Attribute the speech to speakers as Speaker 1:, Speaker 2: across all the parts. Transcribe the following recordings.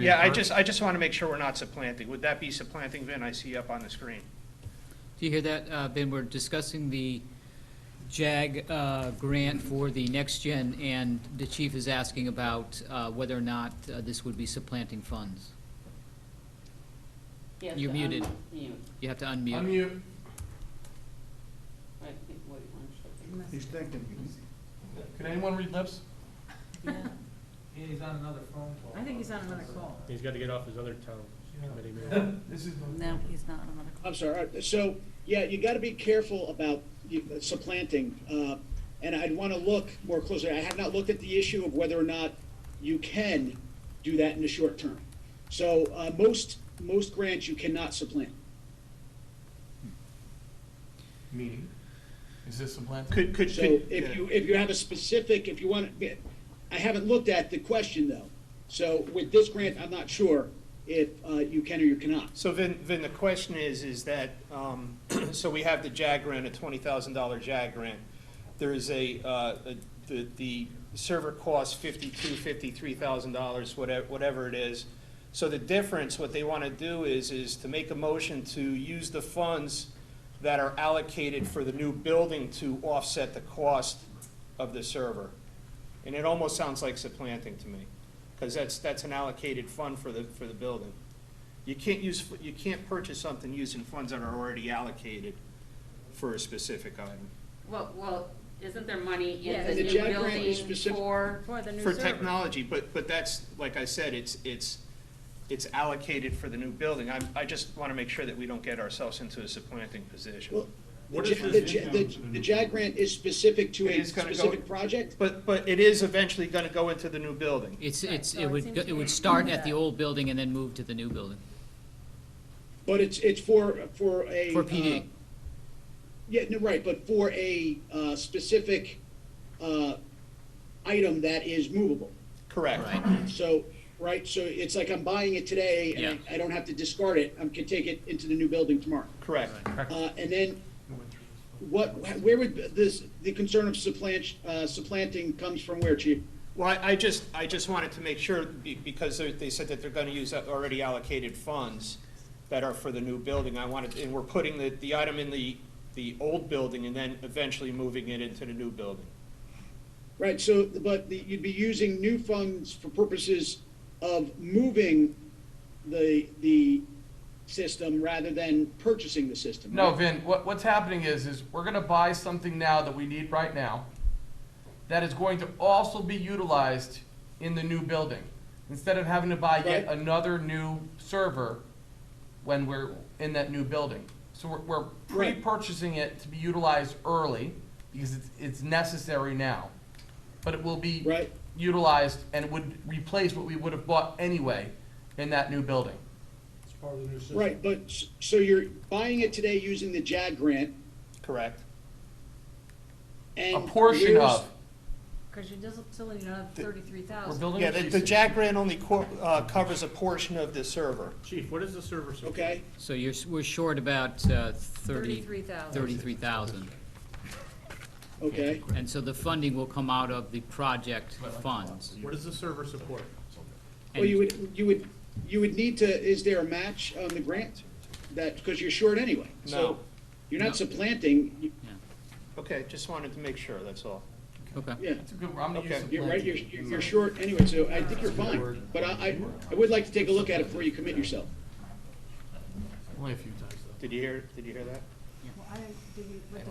Speaker 1: Yeah, I just, I just want to make sure we're not supplanting. Would that be supplanting, Vin, I see up on the screen?
Speaker 2: Do you hear that, uh, Ben? We're discussing the JAG uh, grant for the next gen, and the chief is asking about uh, whether or not uh, this would be supplanting funds.
Speaker 3: You have
Speaker 2: You're
Speaker 3: to
Speaker 2: muted.
Speaker 3: unmute.
Speaker 2: You have to unmute.
Speaker 4: Unmute.
Speaker 3: Wait, wait one second.
Speaker 4: He's thinking. Can anyone read lips?
Speaker 5: He's on another phone call.
Speaker 6: I think he's on another call.
Speaker 7: He's got to get off his other town
Speaker 5: Yeah.
Speaker 7: committee meeting.
Speaker 4: This is.
Speaker 6: No, he's not on another call.
Speaker 8: I'm sorry. Uh, So, yeah, you got to be careful about you- supplanting. uh, And I'd want to look more closely. I have not looked at the issue of whether or not you can do that in the short term. So uh, most, most grants you cannot supplant.
Speaker 4: Meaning? Is this supplanting?
Speaker 1: Could, could,
Speaker 8: So
Speaker 1: could-
Speaker 8: if you, if you have a specific, if you want, to I haven't looked at the question though. So with this grant, I'm not sure if uh, you can or you cannot.
Speaker 1: so Vin, Vin, the question is, is that, um, so we have the JAG grant, a twenty thousand dollar JAG grant. There is a, uh, a- the, the server costs fifty-two, fifty-three thousand dollars, whatever, whatever it is. So the difference, what they want to do is, is to make a motion to use the funds that are allocated for the new building to offset the cost of the server. And it almost sounds like supplanting to me, because that's, that's an allocated fund for the, for the building. You can't use, you can't purchase something using funds that are already allocated for a specific item.
Speaker 3: Well, well, isn't there money
Speaker 6: Yeah,
Speaker 3: in the
Speaker 6: the
Speaker 3: new
Speaker 8: JAG grant is
Speaker 3: building
Speaker 8: specific-
Speaker 3: for?
Speaker 6: For the new
Speaker 1: For
Speaker 6: server.
Speaker 1: technology, but, but that's, like I said, it's, it's, it's allocated for the new building. I, I just want to make sure that we don't get ourselves into a supplanting position.
Speaker 8: Well,
Speaker 4: What
Speaker 8: the
Speaker 4: is
Speaker 8: Ja-
Speaker 4: this
Speaker 8: the Ja-
Speaker 4: income
Speaker 8: the-
Speaker 4: to the new
Speaker 8: The JAG grant is specific to
Speaker 1: It
Speaker 8: a
Speaker 1: is gonna go-
Speaker 8: specific project?
Speaker 1: But, but it is eventually going to go into the new building.
Speaker 2: It's,
Speaker 6: Right,
Speaker 2: it's,
Speaker 6: so
Speaker 2: it
Speaker 6: it
Speaker 2: would,
Speaker 6: seems
Speaker 2: go-
Speaker 6: to
Speaker 2: it
Speaker 6: me
Speaker 2: would start at
Speaker 6: that-
Speaker 2: the old building and then move to the new building.
Speaker 8: But it's, it's for, for a.
Speaker 2: For PD.
Speaker 8: uh, Yeah, no, right, but for a, uh, specific, uh, item that is movable.
Speaker 1: Correct.
Speaker 2: Right.
Speaker 8: So, right, so it's like I'm buying it today and
Speaker 2: Yeah.
Speaker 8: I- I don't have to discard it, I can take it into the new building tomorrow.
Speaker 1: Correct.
Speaker 8: Uh, and then what, where would this, the concern of supplant, uh, supplanting comes from where, chief?
Speaker 1: Well, I- I just, I just wanted to make sure, be- because they- they said that they're gonna use uh, already allocated funds that are for the new building, I wanted, and we're putting the, the item in the, the old building and then eventually moving it into the new building.
Speaker 8: Right, so, but the- you'd be using new funds for purposes of moving the, the system rather than purchasing the system.
Speaker 4: No,
Speaker 8: right?
Speaker 4: Vin, what, what's happening is, is we're gonna buy something now that we need right now that is going to also be utilized in the new building. Instead of having to buy yet
Speaker 8: Right.
Speaker 4: another new server when we're in that new building. So we're, we're
Speaker 8: Right.
Speaker 4: pre-purchasing it to be utilized early because it's, it's necessary now. But it will be
Speaker 8: Right.
Speaker 4: utilized and would replace what we would have bought anyway in that new building.
Speaker 7: It's part of the new system.
Speaker 8: Right, but, s- so you're buying it today using the JAG grant
Speaker 1: Correct.
Speaker 8: and.
Speaker 4: A portion
Speaker 8: years-
Speaker 4: of,
Speaker 6: Because you just still need another thirty-three
Speaker 4: we're
Speaker 6: thousand.
Speaker 4: building.
Speaker 1: Yeah,
Speaker 4: a
Speaker 1: the,
Speaker 4: cheese
Speaker 1: the
Speaker 4: system.
Speaker 1: JAG grant only co- uh, covers a portion of the server.
Speaker 7: Chief, what is the server support?
Speaker 8: Okay,
Speaker 2: So you're, s- we're short about uh, thirty,
Speaker 6: Thirty-three thousand.
Speaker 2: thirty-three thousand.
Speaker 8: okay.
Speaker 2: And so the funding will come out of the project funds.
Speaker 7: What is the server support?
Speaker 8: Well, you would, you would, you would need to, is there a match on the grant? That, because you're short anyway. So
Speaker 1: No.
Speaker 8: You're
Speaker 2: No.
Speaker 8: not supplanting, you-
Speaker 1: Okay, just wanted to make sure, that's all.
Speaker 2: Okay.
Speaker 8: yeah.
Speaker 4: That's a good, I'm gonna
Speaker 1: Okay.
Speaker 4: use supplanting.
Speaker 8: You're right, you're, you're you're short anyway, so I think you're fine, but I, I, I would like to take a look at it before you commit yourself.
Speaker 4: Only a few times though.
Speaker 1: Did you hear, did you hear that?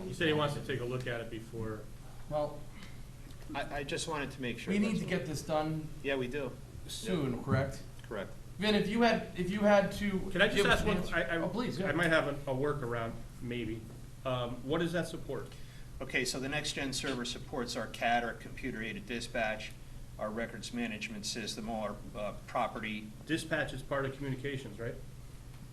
Speaker 7: He said he wants to take a look at it before.
Speaker 4: Well,
Speaker 1: I, I just wanted to make sure.
Speaker 4: we need
Speaker 1: that's
Speaker 4: to
Speaker 1: all.
Speaker 4: get this done
Speaker 1: Yeah, we do,
Speaker 4: soon, correct?
Speaker 1: correct.
Speaker 4: Vin, if you had, if you had to.
Speaker 7: Can I just
Speaker 4: give us
Speaker 7: ask
Speaker 4: an
Speaker 7: one,
Speaker 4: answer-
Speaker 7: I, I.
Speaker 4: Oh, please,
Speaker 7: I
Speaker 4: yeah.
Speaker 7: might have a, a workaround, maybe. Um, what is that support?
Speaker 1: Okay, so the next-gen server supports our CAD, our computer-aided dispatch, our records management system, all our uh, property,
Speaker 7: Dispatch is part of communications, right?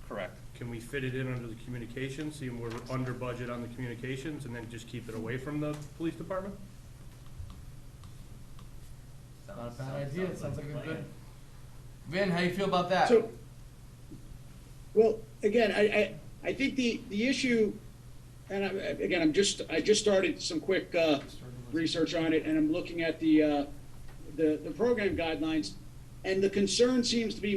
Speaker 1: correct.
Speaker 7: Can we fit it in under the communications, seeing we're under budget on the communications, and then just keep it away from the police department?
Speaker 4: Not a bad idea, it sounds like a good. Vin, how you feel about that?
Speaker 8: So, well, again, I, I, I think the, the issue, and I, again, I'm just, I just started some quick, uh, research on it, and I'm looking at the, uh, the, the program guidelines, and the concern seems to be